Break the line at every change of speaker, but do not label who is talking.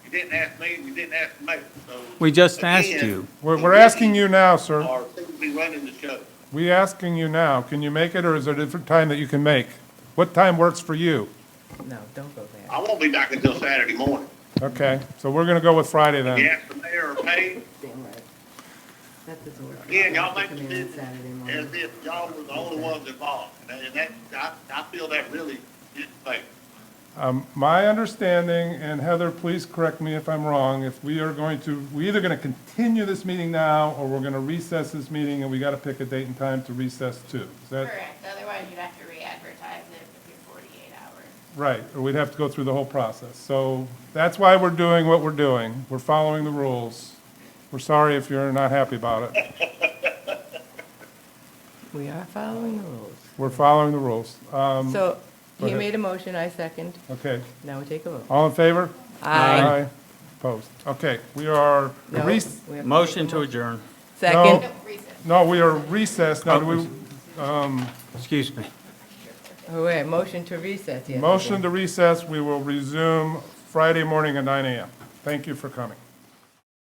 You didn't ask me, and you didn't ask the mayor, so.
We just asked
again,
you.
the
We're, we're
committee
asking you now, sir.
Are who will be running the show.
We asking you now. Can you make it, or is there a different time that you can make? What time works for you?
No, don't go there.
I won't be back until Saturday morning.
Okay, so we're gonna go with Friday
You
then.
ask the mayor or Paige,
Damn right. That doesn't work.
again, y'all make
Come
the
in on Saturday
decision
morning.
as if y'all were the only ones involved. And that- and that, I, I feel that really is fair.
Um, my understanding, and Heather, please correct me if I'm wrong, if we are going to, we either gonna continue this meeting now, or we're gonna recess this meeting, and we gotta pick a date and time to recess too. Is that
Correct, otherwise you'd have to re-advertise it within forty-eight hours.
right? Or we'd have to go through the whole process. So that's why we're doing what we're doing. We're following the rules. We're sorry if you're not happy about it.
We are following the rules.
We're following the rules. Um,
So
go
he
ahead.
made a motion, I second.
okay.
Now we take a vote.
All in favor?
Aye.
Opposed? Okay, we are,
No,
rec-
we have to
Motion
take a
to
mo-
adjourn.
Second.
No, recess.
no, we are recessed. Now, do we,
Excuse me.
Oh, wait, motion to recess, yes.
motion to recess, we will resume Friday morning at nine AM. Thank you for coming.